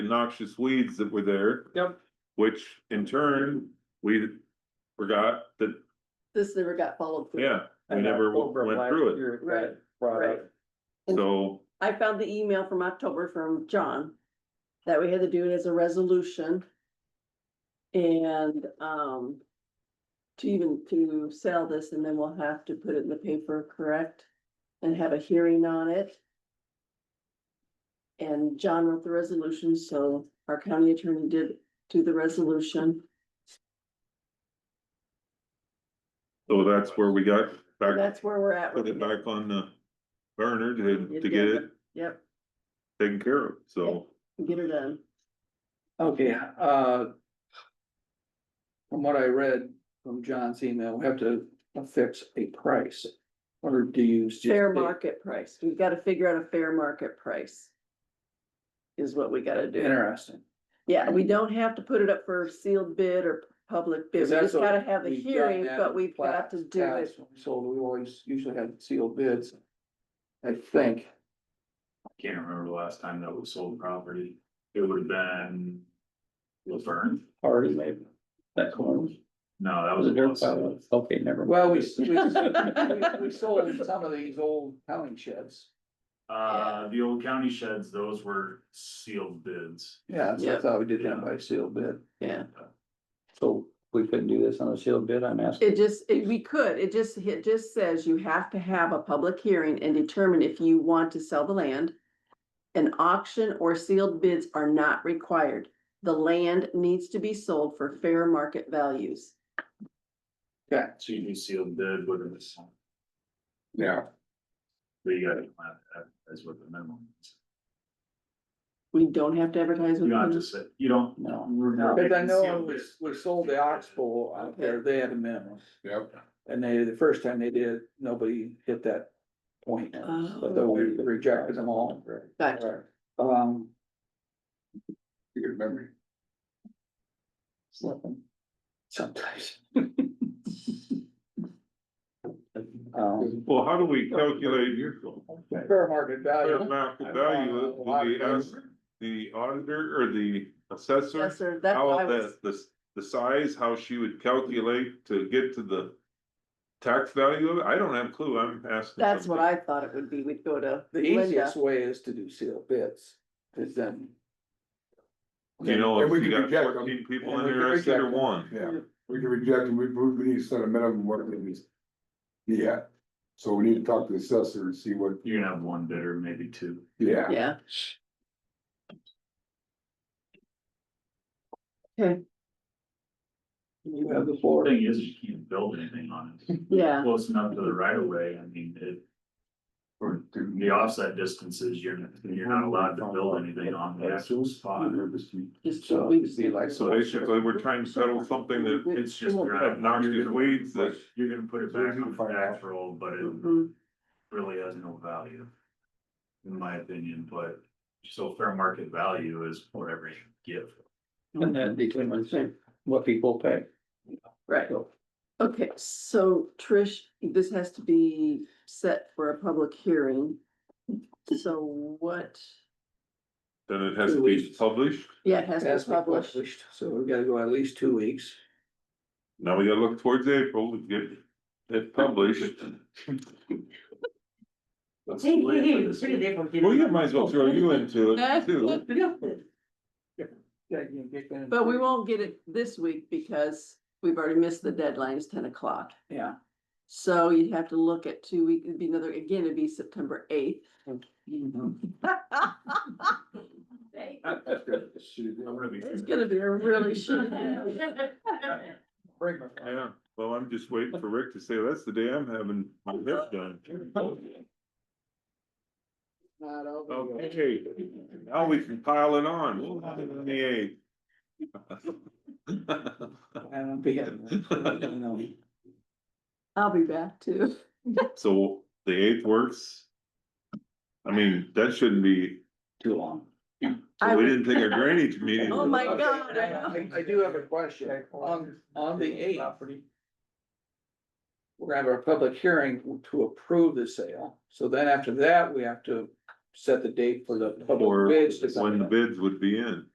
noxious weeds that were there. Yep. Which in turn, we forgot that, This never got followed through. yeah, we And never w- October of went last through it. year, that Right, brought up, And- So, I found the email from October from John that we had to do it as a resolution. And, um, to even to sell this and then we'll have to put it in the paper, correct? And have a hearing on it. And John wrote the resolution, so our county attorney did do the resolution. so that's where we got And back, That's where we're at. put with it back on the burner to, to get it Yep, taken care of, so. get her done. okay, uh. From what I read from John's email, we have to affix a price, or do you? just- Fair market price. We've got to figure out a fair market price. Is what we gotta do. Interesting. Yeah, we don't have to put it up for sealed bid or public bid. We 'Cause that's just what gotta have the we've done hearing, that but in we've got to do it. past, So we always usually have sealed bids. I think, Can't remember the last time that was sold property. It would have been. Laverne? Party maybe. That corner. No, that was. a bus. Okay, never. well, we, we, we- we sold some of these old towing sheds. Uh, the old county sheds, those were sealed bids. Yeah, so I thought we did that by sealed bid. Yeah, So we couldn't do this on a sealed bid, I'm asking. it just, it, we could, it just, it just says you have to have a public hearing and determine if you want to sell the land. An auction or sealed bids are not required. The land needs to be sold for fair market values. Yeah, So you do sealed bid with it. Yeah. But you gotta advertise with the minimum. We don't have to advertise You with. don't have to say, you don't. No. we're not Cause I making know sealed we, bids. we sold the oxbow out there, they had a minimum. Yep. And they, the first time they did, nobody hit that point, Oh. so we rejected them all. Gotcha. Um, Your memory. Slipping. sometimes. Um, Well, how do we calculate fair market fair value, market value? Do we ask the auditor or the Yes, assessor? sir, that's what I How was, the, the, the size, how she would calculate to get to the tax value of it? I don't have a clue. I'm asking. that's what something. I thought it would be. We'd go to the Linda. easiest way is to do sealed bids, cause then. You know, And we if you could got reject them. fourteen people And we could interested or reject them. one, Yeah, we can reject it, we, we need to set a minimum what it is. Yeah, so we need to talk to the assessor and see what, You're gonna have one bidder, maybe two. yeah. Yeah, You have the floor. Thing is, you can't build anything on it. yeah, Close enough to the right of way, I mean, it. Or do- The offset distances, you're, you're not allowed to build anything on the actual spot. just. So, we- see, like, so basically we're trying to settle something that It's just. Mm-hmm. Well, you're not- obnoxious weeds that- You're gonna put it back on the actual, but it Mhm. really has no value. In my opinion, but so fair market value is whatever you give. Mm-hmm. And that determines what people pay. Right, okay, so Trish, this has to be set for a public hearing. So what, then it has Two to be weeks. published. yeah, it has That's to be published. published, so we gotta go at least two weeks. Now we gotta look towards April to get it published. Let's Hey, hey, delay it hey, for it's this pretty week. different. you Well, you know. might as well throw you into it too. But But we won't get it this week because we've already missed the deadline, it's ten o'clock. Yeah. So you'd have to look at two weeks, it'd be another, again, it'd be September eighth. I'm gonna be- It's gonna be a really short. Bring my- Yeah, well, I'm just waiting for Rick to say, that's the day I'm having my hip done. Not over. Okay, now we can pile it on. We'll have it on the eighth. I don't think I- I don't know. I'll be back too. So the eighth works. I mean, that shouldn't be, Too long. I we would- didn't take our drainage meeting. Oh my God, I know. I I do have a question, on, on the eighth. We're gonna have a public hearing to approve the sale, so then after that, we have to set the date for the public Or bids to come when the in. bids would be in.